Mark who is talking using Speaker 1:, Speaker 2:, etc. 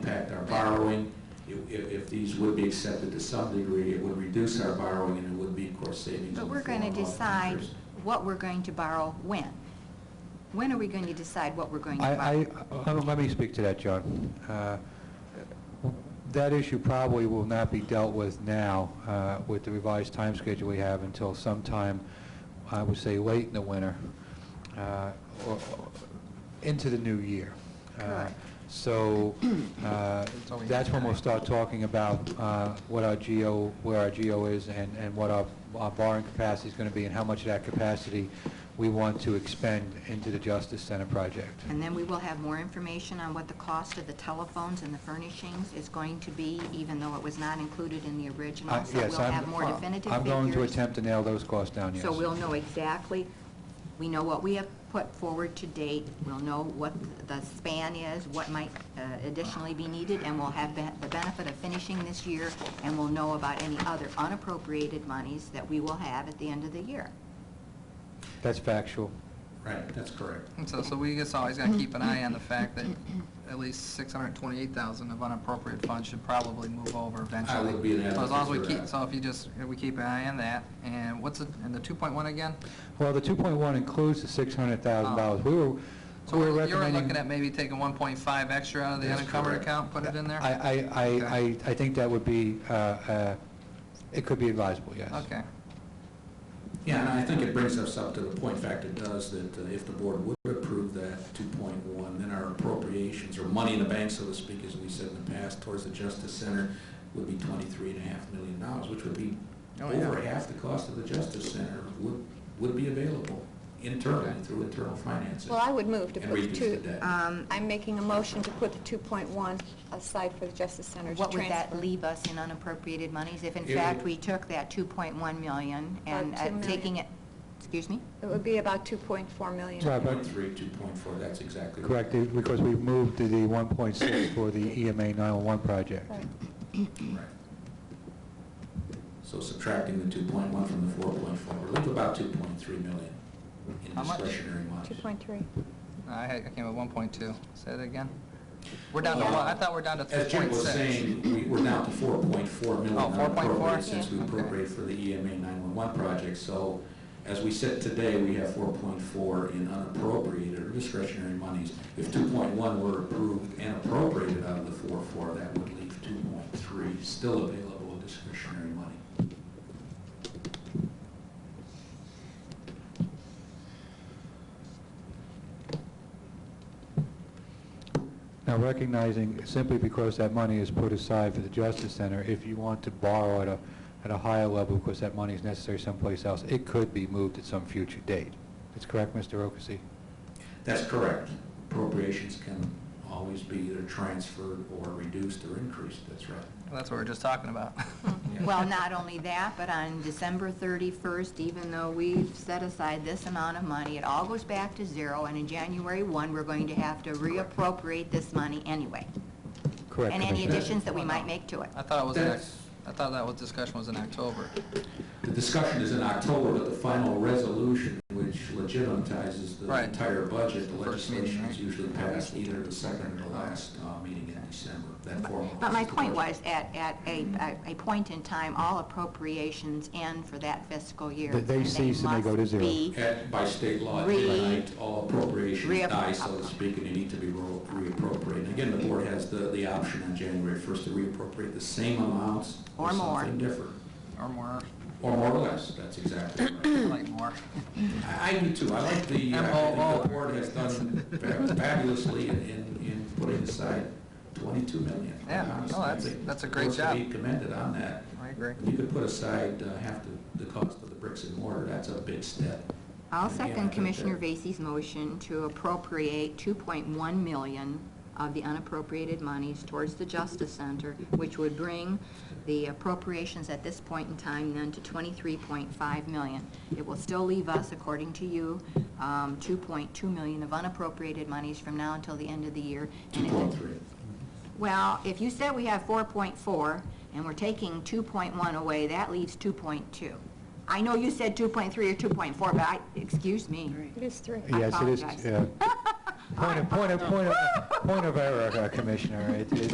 Speaker 1: impact our borrowing. If- If, if these would be accepted to some degree, it would reduce our borrowing and it would be, of course, savings.
Speaker 2: But
Speaker 1: in the
Speaker 2: we're going to
Speaker 1: form of
Speaker 2: decide
Speaker 1: interest.
Speaker 2: what we're going to borrow when. When are we going to decide what we're going to
Speaker 3: I,
Speaker 2: borrow?
Speaker 3: I, uh, let me speak to that, John. Uh, That issue probably will not be dealt with now uh, with the revised time schedule we have until sometime, I would say, late in the winter, uh, or or into the new year. Uh,
Speaker 2: Correct.
Speaker 3: So uh, that's when we'll start talking about uh, what our GO, where our GO is and and what our our borrowing capacity is going to be and how much of that capacity we want to expend into the Justice Center project.
Speaker 2: And then we will have more information on what the cost of the telephones and the furnishings is going to be, even though it was not included in the original.
Speaker 3: Uh, Yes,
Speaker 2: So we'll
Speaker 3: I'm-
Speaker 2: have more definitive figures.
Speaker 3: I'm going to attempt to nail those costs down, yes.
Speaker 2: So we'll know exactly, we know what we have put forward to date, we'll know what the span is, what might uh, additionally be needed, and we'll have be- the benefit of finishing this year, and we'll know about any other unappropriated monies that we will have at the end of the year.
Speaker 3: That's factual.
Speaker 1: Right, that's correct.
Speaker 4: And so, so we just always gotta keep an eye on the fact that at least six hundred and twenty-eight thousand of unappropriated funds should probably move over eventually.
Speaker 1: would be an
Speaker 4: So as long as we
Speaker 1: advocate for
Speaker 4: keep,
Speaker 1: that.
Speaker 4: so if you just, if we keep an eye on that, and what's, it- and the two point one again?
Speaker 3: Well, the 2.1 includes the $600,000. We were,
Speaker 4: Oh. So
Speaker 3: we were
Speaker 4: you're
Speaker 3: recommending...
Speaker 4: looking at maybe taking one point five extra out of the
Speaker 1: That's
Speaker 4: unencumbered
Speaker 1: correct.
Speaker 4: account, put it in there?
Speaker 3: I, I- I, I,
Speaker 4: Okay.
Speaker 3: I think that would be, uh, uh, it could be advisable, yes.
Speaker 4: Okay.
Speaker 1: Yeah, and I think it brings us up to the point, in fact, it does, that uh, if the board would approve that 2.1, then our appropriations, or money in the bank, so to speak, as we said in the past, towards the Justice Center would be $23.5 million, dollars, which would be
Speaker 4: Oh, yeah.
Speaker 1: over half the cost of the Justice Center would, would be available internally,
Speaker 4: Okay.
Speaker 1: through internal financing.
Speaker 5: Well, I would move to
Speaker 1: And
Speaker 5: put the
Speaker 1: reduce
Speaker 5: two...
Speaker 1: the debt.
Speaker 2: Um,
Speaker 5: I'm making a motion to put the 2.1 aside for the Justice Center to
Speaker 2: What
Speaker 5: transfer.
Speaker 2: would that leave us in unappropriated monies if in
Speaker 1: It
Speaker 2: fact
Speaker 1: would-
Speaker 2: we took that 2.1 million and
Speaker 5: About two
Speaker 2: uh, taking
Speaker 5: million.
Speaker 2: it, excuse me?
Speaker 5: It would be about 2.4 million.
Speaker 3: Right, but-
Speaker 1: 2.3, 2.4, that's exactly. right.
Speaker 3: Correct, it- because we moved to the 1.6 for the E EMA 911 oh project.
Speaker 5: Right.
Speaker 1: Right. So subtracting the 2.1 from the 4.4, we leave about 2.3 million in
Speaker 4: How much?
Speaker 1: discretionary money.
Speaker 5: 2.3.
Speaker 4: I had, I came with one point two. Say that again? We're down to
Speaker 1: Yeah.
Speaker 4: one, I thought we're down to three
Speaker 1: As Jim
Speaker 4: point
Speaker 1: was
Speaker 4: six.
Speaker 1: saying, we- we're down to 4.4 million
Speaker 4: Oh, 4.4?
Speaker 1: unappropriated since we
Speaker 4: Yeah.
Speaker 1: appropriated for the E EMA 911 project. So as we sit today, we have 4.4 in unappropriated or discretionary monies. If 2.1 were approved and appropriated out of the 4.4, that would leave 2.3 still available in discretionary money.
Speaker 3: Now, recognizing simply because that money is put aside for the Justice Center, if you want to borrow at a, at a higher level because that money is necessary someplace else, it could be moved at some future date. That's correct, Mr. Ocasie?
Speaker 1: That's correct. Appropriations can always be either transferred or reduced or increased, that's right.
Speaker 4: That's what we we're just talking about.
Speaker 1: Yeah.
Speaker 2: Well, not only that, but on December 31st, even though we've set aside this amount of money, it all goes back to zero, and in January 1, we're going to have to reappropriate this money anyway,
Speaker 3: Correct,
Speaker 2: and any
Speaker 3: Commissioner.
Speaker 2: additions that we might make to it.
Speaker 4: I thought it was, in Oc-
Speaker 1: That's-
Speaker 4: I thought that was, discussion was in October.
Speaker 1: The discussion is in October, but the final resolution, which legitimizes the
Speaker 4: Right.
Speaker 1: entire budget, the
Speaker 4: First meeting,
Speaker 1: legislation is
Speaker 4: right.
Speaker 1: usually passed either the second or the last uh, meeting in December. That formalizes
Speaker 2: But my
Speaker 1: the
Speaker 2: point
Speaker 1: budget.
Speaker 2: was, at, at a, a- a point in time, all appropriations end for that fiscal year.
Speaker 3: They- they cease and they go to
Speaker 2: must
Speaker 3: zero.
Speaker 2: be-
Speaker 1: At- By state law, at
Speaker 2: Re-
Speaker 1: midnight, all appropriations
Speaker 2: reapp-
Speaker 1: die, so to speak, and they need to be ro- reappropriated. Again, the board has the, the option on January 1st to reappropriate the same amounts
Speaker 2: Or more.
Speaker 1: something different.
Speaker 4: Or more,
Speaker 1: Or more or less, that's exactly
Speaker 4: I
Speaker 1: right.
Speaker 4: like more.
Speaker 1: I I do too, I like the, uh, I think
Speaker 4: MOO.
Speaker 1: the board has done fab- fabulously in, in in putting aside 22 million.
Speaker 4: Yeah, no,
Speaker 1: Honestly, I
Speaker 4: that's-
Speaker 1: think
Speaker 4: that's a great
Speaker 1: board's to be
Speaker 4: job.
Speaker 1: commended on that.
Speaker 4: I agree.
Speaker 1: If you could put aside uh, half the, the cost of the bricks and mortar, that's a big step.
Speaker 2: I'll
Speaker 1: Yeah, I
Speaker 2: second
Speaker 1: think
Speaker 2: Commissioner
Speaker 1: that-
Speaker 2: Vacy's motion to appropriate 2.1 million of the unappropriated monies towards the Justice Center, which would bring the appropriations at this point in time then to 23.5 million. It will still leave us, according to you, um, 2.2 million of unappropriated monies from now until the end of the year. And if it-
Speaker 1: 2.3.
Speaker 2: Well, if you said we have 4.4 and we're taking 2.1 away, that leaves 2.2. I know you said 2.3 or 2.4, but I, excuse me.
Speaker 5: It is 3.
Speaker 2: I
Speaker 3: Yes, it is,
Speaker 2: apologize.
Speaker 3: yeah. Point of, point of, point of, point of error, uh, Commissioner. It- it-